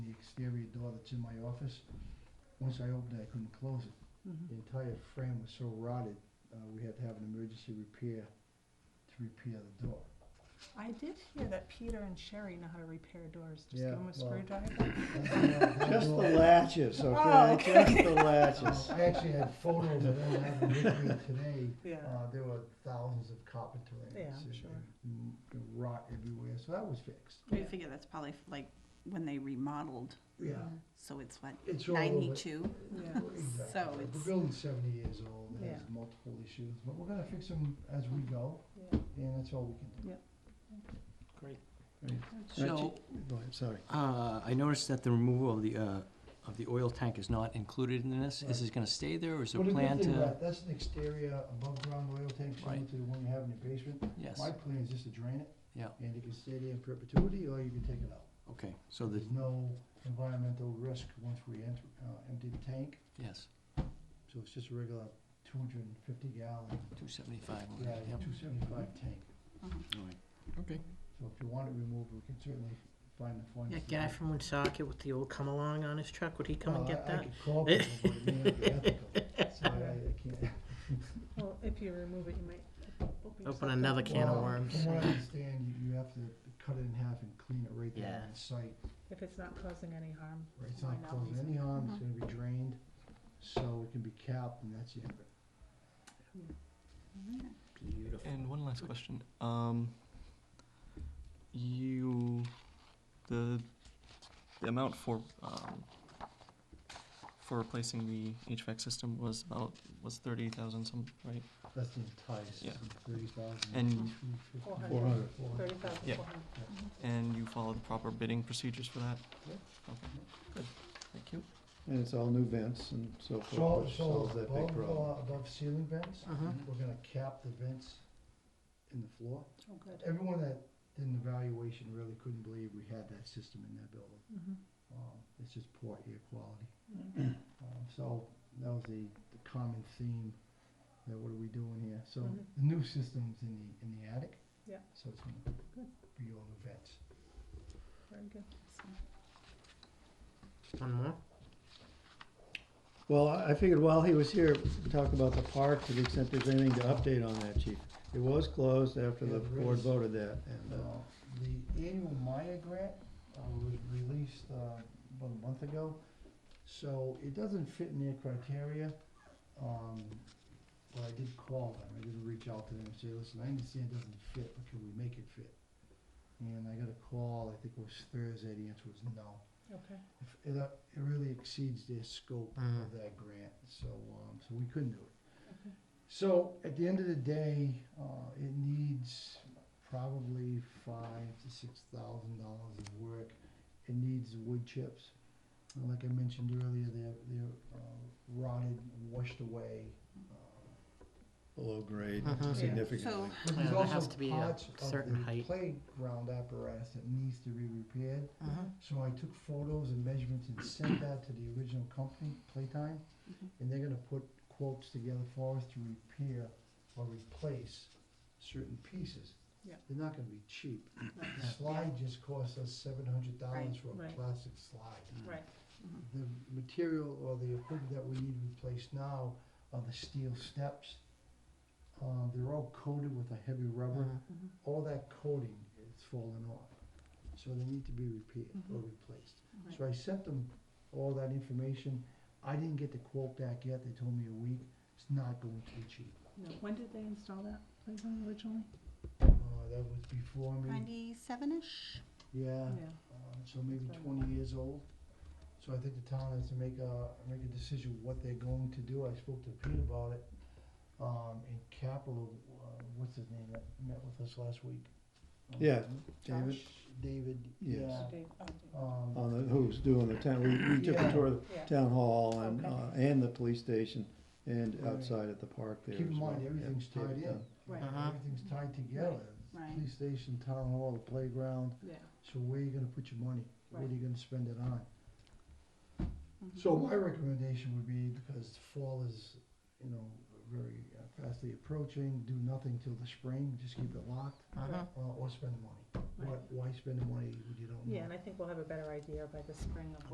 exterior door that's in my office. Once I opened it, I couldn't close it. The entire frame was so rotted, uh, we had to have an emergency repair to repair the door. I did hear that Peter and Sherry know how to repair doors. Just Yeah, give them a well- screwdriver. Just the latches, Oh, okay? okay. Just the latches. I actually had photos of them, I have them with me today. Yeah. Uh, there were thousands of carpenter ants. Yeah, I'm and- sure. and m- Rot everywhere, so that was fixed. We figure that's probably f- like when they remodeled, Yeah. so it's what, It's all over. ninety-two? Yeah. Exactly. So The it's- building's seventy years old, it has Yeah. multiple issues, but we're gonna fix them as we go, Yeah. and that's all we can do. Great. So, Go ahead, sorry. uh, I noticed that the removal of the, uh, of the oil tank is not included in this. Is this gonna stay there, or is there What a did we plan think to? about- That's an exterior above-ground oil tank, similar Right. to the one you have in your basement. Yes, My plan is just to drain it, yeah, and it can stay there in perpetuity, or you can take it out. okay, so the, There's no environmental risk once we enter, uh, empty the tank, yes, so it's just a regular two hundred and fifty gallon, two seventy-five, yeah, yeah, two seventy-five tank. Mhm. all right, okay. So if you want it removed, we can certainly find the funds. That to guy do it. from Woonsocket with the old come along on his truck, would he come and Well, get Oh, I- I that? could call people, but it may not be ethical, so I, I can't. Well, if you remove it, you might open, Open yourself another up. can of Well, worms. From what I understand, you, you have to cut it in half and clean it right there Yeah. on site. If it's not causing any harm. Right, It's not Why not? Mm-hmm. causing any harm, it's gonna be drained, so it can be capped and that's the end of it. Beautiful. And one last question. Um, you, the, the amount for, um, for replacing the HVAC system was about, was thirty thousand some, right? That's the entire system, thirty thousand. And, Four hundred. Thirty thousand Yeah. four hundred. and you followed the proper bidding procedures for that? Yeah. Okay, good, thank you. And it's all new vents and so forth, So, which so solves that above, big problem. uh, above ceiling vents, Uh-huh. we're gonna cap the vents in the floor. Oh, good. Everyone that did an evaluation really couldn't believe we had that system in that building. Mhm. Um, it's just poor air quality. Mm-hmm. Um, so that was the, the common theme, that what are we doing here? So Mhm. the new system's in the, in the attic. Yeah. So it's gonna Good. be all new vents. Very good. One more? Well, I I figured while he was here, we could talk about the park to the extent there's anything to update on that, chief. It was closed after Yeah, the there board is. voted that and, uh, Uh, The annual Maya grant uh, was released uh, about a month ago, so it doesn't fit in their criteria. Um, But I did call them, I did reach out to them and say, listen, I understand it doesn't fit, but can we make it fit? And I got a call, I think it was Thursday, the answer was no. Okay. If- It uh, it really exceeds their scope of Mhm. that grant, so, um, so we couldn't do it. So at the end of the day, uh, it needs probably five to six thousand dollars of work. It needs wood chips. And like I mentioned earlier, they're, they're uh, rotted, washed away. uh, below grade Mhm. Yeah. significantly. So- But Well, there's there has also to be a parts of certain the height. playground apparatus that needs to be repaired. Uh-huh. So I took photos and measurements and sent that to the original company, Playtime, Mhm. Mm-hmm. and they're gonna put quotes together for us to repair or replace certain pieces. Yeah. They're not gonna be cheap. The slide just cost us seven hundred dollars for a Right. plastic slide. Right. The material or the equipment that we need replaced now are the steel steps. Uh, they're all coated with a heavy rubber Mhm. all that coating is falling off. So they need to be repaired or replaced. So I sent them all that information. I didn't get the quote back yet. They told me a week. It's not going to be cheap. No. When did they install that playground originally? Uh, that was before me. Ninety-seven-ish? Yeah, uh, so maybe twenty years old. So I think the town has to make a, make a decision what they're going to do. I spoke to Pete about it. Um, in Capital, uh, what's his name that met with us last week? Yeah, Um, David, Josh? David, Yes. yeah. Dave- oh, Um, on the, who's doing the town, we, we took Yeah. a tour of Yeah. the town hall and, Okay. uh, and the police station and Right. outside at the park there Keep in as well. mind, Yeah, everything's David tied in. Dunn. Right. Uh-huh. Everything's tied together. Right. Police station, town hall, the playground. Yeah. So where are you gonna put your money? What are Right. you gonna spend it on? Mm-hmm. So my recommendation would be, because fall is, you know, very uh, fastly approaching, do nothing till the spring, just keep it locked, Uh-huh. uh, or spend the money. Right. Why, why spend the money when you don't know? Yeah, and I think we'll have a better idea by the spring of